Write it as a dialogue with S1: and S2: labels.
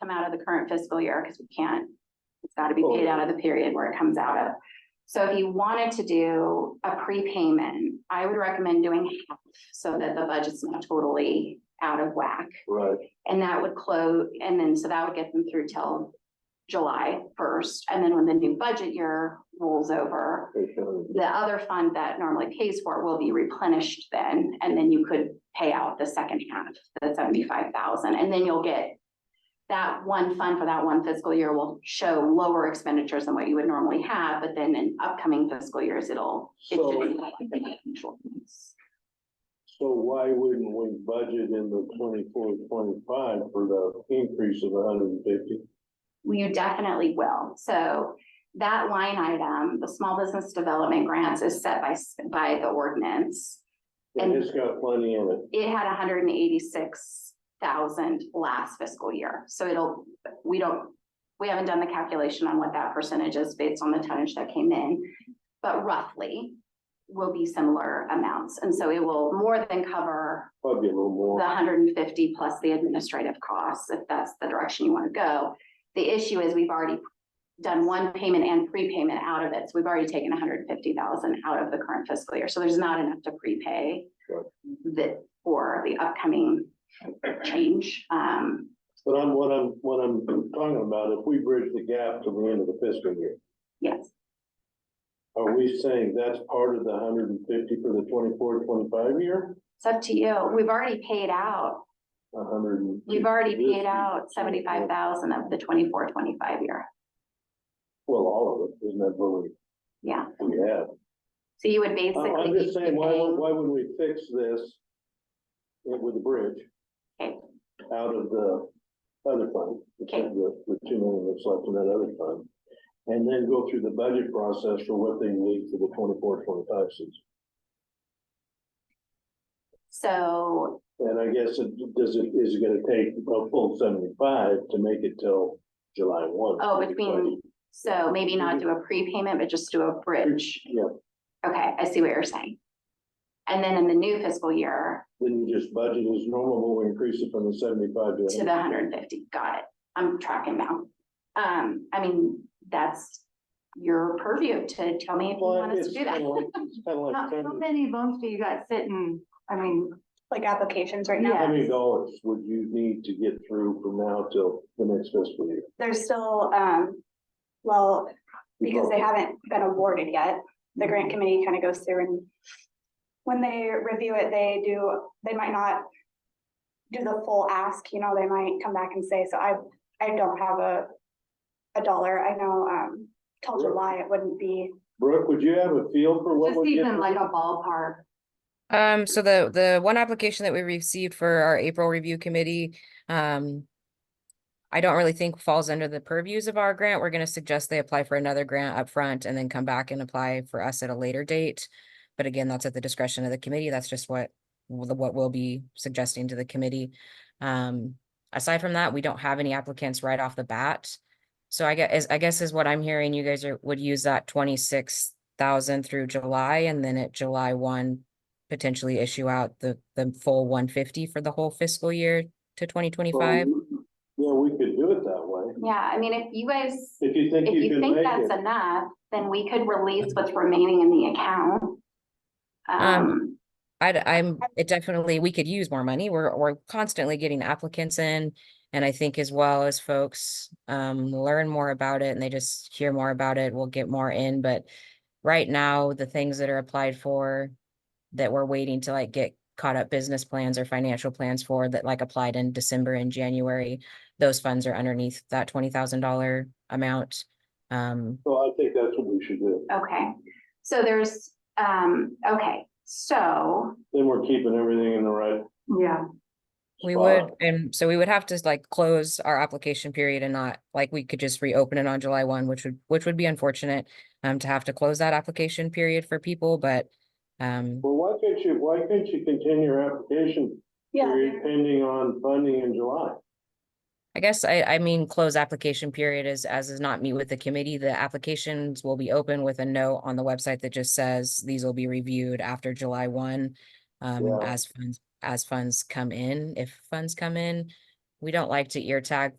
S1: come out of the current fiscal year because we can't. It's got to be paid out of the period where it comes out of. So if you wanted to do a prepayment, I would recommend doing half so that the budget's not totally out of whack.
S2: Right,
S1: And that would close, and then, so that would get them through till July first, and then when the new budget year rolls over.
S2: they should.
S1: The other fund that normally pays for it will be replenished then, and then you could pay out the second half, the seventy-five thousand, and then you'll get. That one fund for that one fiscal year will show lower expenditures than what you would normally have, but then in upcoming fiscal years, it'll. it
S2: So-
S1: should be like the actual ones.
S2: So why wouldn't we budget in the 24-25 for the increase of hundred and fifty?
S1: Well, You definitely will. So that line item, the small business development grants is set by, s- by the ordinance.
S2: And
S1: And-
S2: it's got plenty in it.
S1: It had hundred and eighty-six thousand last fiscal year. So it'll, we don't, we haven't done the calculation on what that percentage is based on the tonnage that came in. But roughly will be similar amounts. And so it will more than cover
S2: Probably a little
S1: the
S2: more.
S1: hundred and fifty plus the administrative costs, if that's the direction you want to go. The issue is we've already done one payment and prepayment out of it, so we've already taken hundred and fifty thousand out of the current fiscal year, so there's not enough to prepay
S2: Sure.
S1: that for the upcoming change. Um,
S2: But I'm, what I'm, what I'm talking about, if we bridge the gap to the end of the fiscal year,
S1: yes,
S2: are we saying that's part of the hundred and fifty for the 24-25 year?
S1: it's up to you. We've already paid out,
S2: A hundred and.
S1: we've already
S2: fifty.
S1: paid out seventy-five thousand of the 24-25 year,
S2: Well, all of it, isn't that what we,
S1: yeah.
S2: we have?
S1: So you would basically.
S2: I'm, I'm
S1: be
S2: just saying, why,
S1: paying-
S2: would- why would we fix this with the bridge
S1: Okay.
S2: out of the other fund? the-
S1: Okay.
S2: The, the two million that's left in that other fund, and then go through the budget process for what they need for the 24-25 season.
S1: So
S2: And I guess it, does it, is it gonna take a full seventy-five to make it till July one?
S1: Oh, between, so maybe not do a prepayment, but just do a bridge.
S2: Yeah.
S1: Okay, I see what you're saying. And then in the new fiscal year
S2: Then you just budget as normal, we increase it from the seventy-five to.
S1: to the hundred and fifty, got it. I'm tracking now. Um, I mean, that's your purview to tell me if you
S2: Well,
S1: want us to
S2: it's
S1: do that.
S2: kinda like- it's kinda like
S3: How, how
S2: sending-
S3: many votes do you got sitting, I mean,
S4: like applications right
S2: How
S4: now.
S2: many dollars would you need to get through from now till the next fiscal year?
S4: There's still, um, well, because they haven't been awarded yet. The grant committee kind of goes through and when they review it, they do, they might not do the full ask, you know, they might come back and say, so I, I don't have a, a dollar. I know, um, till
S2: Sure.
S4: July, it wouldn't be.
S2: Brooke, would you have a feel for what
S3: just
S2: would get?
S3: even like a ballpark,
S5: Um, so the, the one application that we received for our April review committee, um, I don't really think falls under the purviews of our grant. We're gonna suggest they apply for another grant up front and then come back and apply for us at a later date. But again, that's at the discretion of the committee. That's just what, w- the- what we'll be suggesting to the committee. Um, aside from that, we don't have any applicants right off the bat. So I guess, I guess is what I'm hearing, you guys are, would use that twenty-six thousand through July and then at July one, potentially issue out the, the full one fifty for the whole fiscal year to twenty twenty-five?
S2: Yeah, we could do it that way.
S1: Yeah, I mean, if you guys,
S2: If you think
S1: if
S2: you
S1: you
S2: can
S1: think
S2: make
S1: that's
S2: it,
S1: enough, then we could release what's remaining in the account. Um,
S5: I, am it definitely, we could use more money. We're, we're constantly getting applicants in. And I think as well as folks, um, learn more about it and they just hear more about it, we'll get more in, but right now, the things that are applied for that we're waiting to like get caught up business plans or financial plans for that like applied in December and January, those funds are underneath that twenty thousand dollar amount. Um,
S2: so I think that's what we should do.
S1: okay, so there's, um, okay, so
S2: Then we're keeping everything in the right
S3: yeah.
S5: We
S2: spot.
S5: would, and so we would have to like close our application period and not, like, we could just reopen it on July one, which would, which would be unfortunate. Um, to have to close that application period for people, but, um,
S2: Well, why can't you, why can't you continue your application period pending on funding in July?
S5: I guess I, I mean, close application period is, as is not meet with the committee, the applications will be open with a note on the website that just says these will be reviewed after July one. Um,
S2: Yeah.
S5: as funds, as funds come in, if funds come in, we don't like to ear tag